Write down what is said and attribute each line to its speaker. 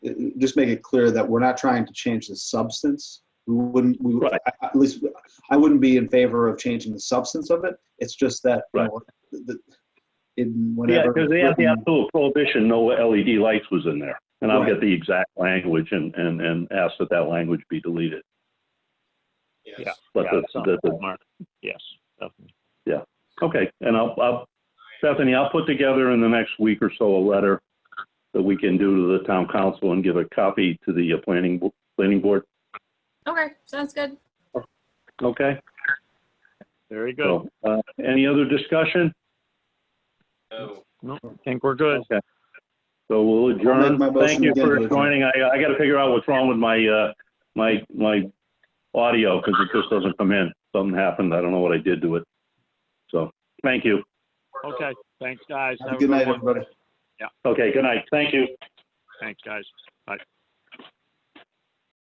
Speaker 1: just make it clear that we're not trying to change the substance. We wouldn't, we,
Speaker 2: Right.
Speaker 1: I- at least, I wouldn't be in favor of changing the substance of it. It's just that, you
Speaker 2: Right.
Speaker 1: know, the, in
Speaker 2: Yeah,
Speaker 1: whenever.
Speaker 2: because they have the
Speaker 1: written-
Speaker 2: absolute prohibition, no LED lights was in there. And I'll
Speaker 1: Right.
Speaker 2: get the exact language and, and, and ask that that language be deleted.
Speaker 3: Yeah.
Speaker 2: But
Speaker 3: yeah,
Speaker 2: the,
Speaker 3: that's not
Speaker 2: the, the,
Speaker 3: Mark. Yes, definitely.
Speaker 2: okay, and I'll, I'll, Bethany, I'll put together in the next week or so a letter that we can do to the town council and give a copy to the uh, planning, bo- planning board,
Speaker 4: Okay, sounds good.
Speaker 2: okay?
Speaker 3: Very good.
Speaker 2: So, uh, any other discussion?
Speaker 3: No, I think we're good.
Speaker 2: Okay. So we'll adjourn.
Speaker 1: my motion
Speaker 2: Thank you
Speaker 1: again to
Speaker 2: for
Speaker 1: adjourn.
Speaker 2: joining. I, I gotta figure out what's wrong with my, uh, my, my audio, because it just doesn't come in. Something happened. I don't know what I did to it. So, thank you.
Speaker 3: Okay, thanks, guys.
Speaker 1: Have a
Speaker 3: Have
Speaker 1: Good night,
Speaker 3: one.
Speaker 1: everybody.
Speaker 2: Okay, good night. Thank you.
Speaker 3: Thanks, guys.